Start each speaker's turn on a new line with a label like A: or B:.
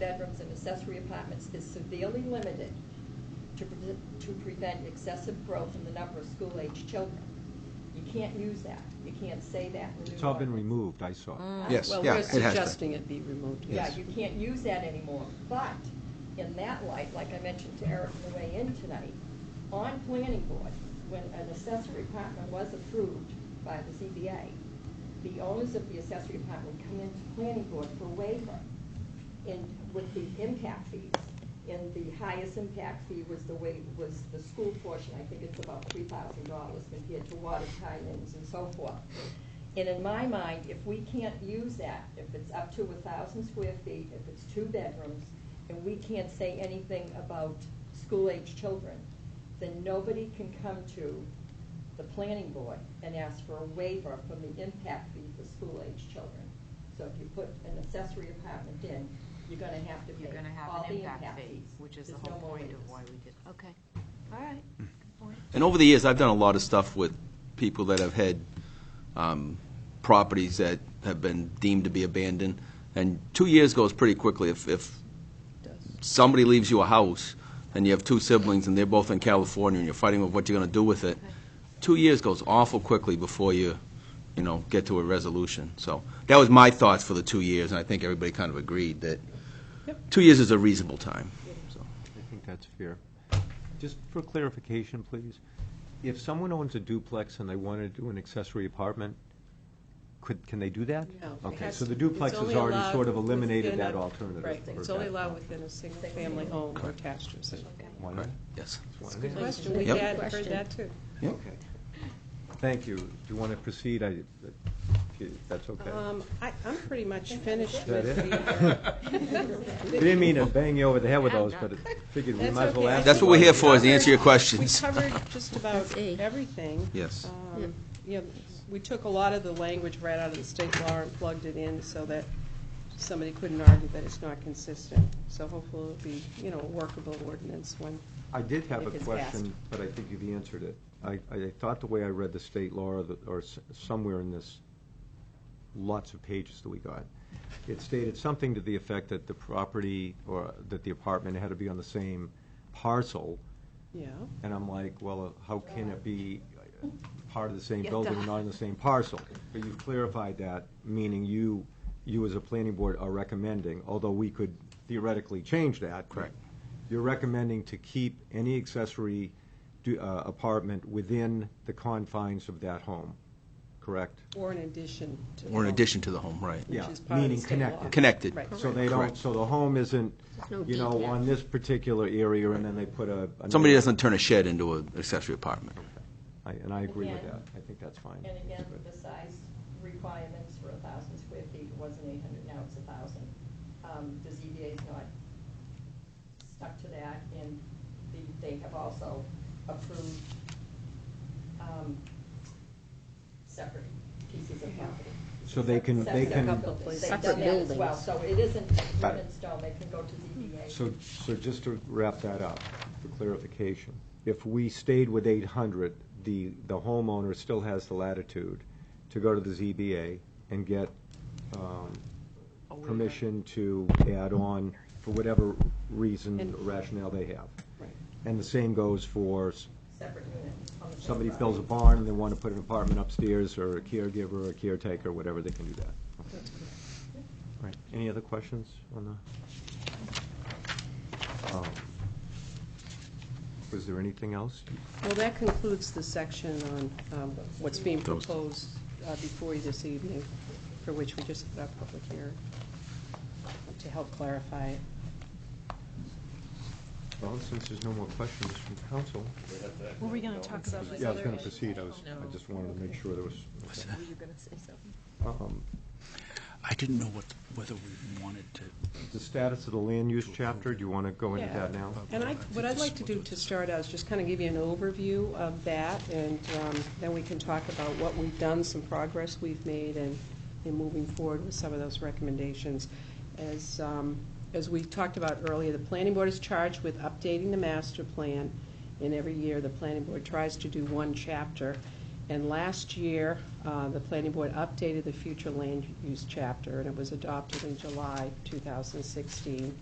A: bedrooms and accessory apartments is severely limited to, pre- to prevent excessive growth in the number of school-aged children. You can't use that. You can't say that in the new
B: It's all been
A: ordinance.
B: removed, I saw.
C: Mm.
D: Yes,
A: Well,
D: yeah,
A: we're
D: it has been.
C: Uh, suggesting it be removed,
A: Yeah,
D: Yes.
A: you can't use that anymore, but in that light, like I mentioned to Eric on the way in tonight, on planning board, when an accessory apartment was approved by the ZBA, the owners of the accessory apartment come into planning board for waiver in, with the impact fees. And the highest impact fee was the way, was the school portion, I think it's about three thousand dollars compared to water tie-ins and so forth. And in my mind, if we can't use that, if it's up to a thousand square feet, if it's two bedrooms, and we can't say anything about school-age children, then nobody can come to the planning board and ask for a waiver from the impact fee for school-age children. So if you put an accessory apartment in, you're gonna have to pay
E: You're gonna
A: all
E: have
A: the
E: an
A: impact
E: impact fee,
A: fees.
E: which is the
A: There's
E: whole
A: no more
E: point of
A: waivers.
E: why we did. Okay, all right. Good point.
D: And over the years, I've done a lot of stuff with people that have had um, properties that have been deemed to be abandoned, and two years goes pretty quickly. If, if somebody leaves you a house, and you have two siblings, and they're both in California, and you're fighting over what you're going to do with it, two years goes awful quickly before you, you know, get to a resolution. So that was my thoughts for the two years, and I think everybody kind of agreed that two years is a reasonable time, so.
B: I think that's fair. Just for clarification, please, if someone owns a duplex and they want to do an accessory apartment, could, can they do that?
C: No.
B: Okay,
C: It's-
B: so the
C: it's
B: duplex has
C: only
B: already
C: allowed
B: sort of eliminated
C: within
B: that
C: a-
B: alternative.
C: Right,
B: for
C: it's only
B: that.
C: allowed within a single-family home or attached to a single.
B: Why not?
D: Yes.
B: Why
C: Good
B: not?
C: question, we
D: Yep.
C: had heard that too.
B: Okay. Thank you. Do you want to proceed? I, if you- that's okay.
C: Um, I, I'm pretty much finished
B: that
C: with uh,
B: it?
C: the.
B: We Didn't mean to bang you over the head with those, but I figured we
C: That's
B: might as well
C: okay. I
B: ask.
D: That's
C: think
D: what we're
C: we
D: here for, is
C: covered-
D: answer your questions.
C: We covered just about
E: That's E.
C: everything.
D: Yes.
C: Um,
E: Yep.
C: You know, we took a lot of the language right out of the state law and plugged it in so that somebody couldn't argue that it's not consistent. So hopefully it'll be, you know, a workable ordinance when,
B: I did have a
C: If it's
B: question, but I think you've answered it. I, I thought the way I read the state law, or the- or s- somewhere in this, lots of pages that we got, it stated something to the effect that the property, or that the apartment had to be on the same parcel,
C: yeah.
B: and I'm like, well, uh, how can it be uh, part of the same
E: Yeah,
B: building, and
E: duh.
B: not on the same parcel? But you've clarified that, meaning you, you as a planning board are recommending, although we could theoretically change that.
D: Correct.
B: You're recommending to keep any accessory du- uh, apartment within the confines of that home, correct?
C: Or in addition to.
D: Or in
C: the-
D: addition to the home, right.
C: Which
B: Yeah,
C: is part of the
B: meaning
C: state law.
B: connected.
D: Connected.
C: Right.
B: So they don't,
D: Correct.
B: so the home isn't,
E: no
B: you know,
E: detached.
B: on this particular area, and then they put a. a-
D: Somebody doesn't turn a shed into an accessory apartment.
B: I- And I agree with
A: Again.
B: that. I think that's fine.
A: And again,
B: That's good.
A: the size requirements for a thousand square feet wasn't eight hundred, now it's a thousand. Um, the ZBA's not stuck to that, and the- they have also approved, um, separate pieces of property.
B: So they can- they
A: Separate
B: can-
A: buildings. They've done
E: Separate
A: that as well,
E: buildings.
A: so it isn't
B: Right.
A: written in stone, they can go to ZBA.
B: So, so just to wrap that up, for clarification, if we stayed with eight hundred, the, the homeowner still has the latitude to go to the ZBA and get, um, permission to add on for whatever reason,
C: And-
B: rationale they have.
C: Right.
B: And the same goes for s-
A: Separate units on the same
B: somebody
A: property.
B: builds a barn and they want to put an apartment upstairs, or a caregiver, or a caretaker, whatever, they can do that.
C: That's correct.
B: All right, any other questions on the? um, Was there anything else?
C: Well, that concludes the section on um, what's being
D: That was-
C: proposed uh, before you this evening, for which we just had our public hearing, to help clarify it.
B: Well, since there's no more questions from council.
E: Were we gonna talk about
B: Yeah, I was going to proceed, I was, I just wanted to make sure there was.
E: Were you gonna say something?
B: Um,
F: I didn't know what, whether we wanted to,
B: The status of the land use chapter, do you want to go into that now?
C: And I, what I'd like to do to start out is just kind of give you an overview of that, and um, then we can talk about what we've done, some progress we've made, and in moving forward with some of those recommendations. As, um, as we talked about earlier, the planning board is charged with updating the master plan, and every year, the planning board tries to do one chapter. And last year, uh, the planning board updated the future land use chapter, and it was adopted in July 2016.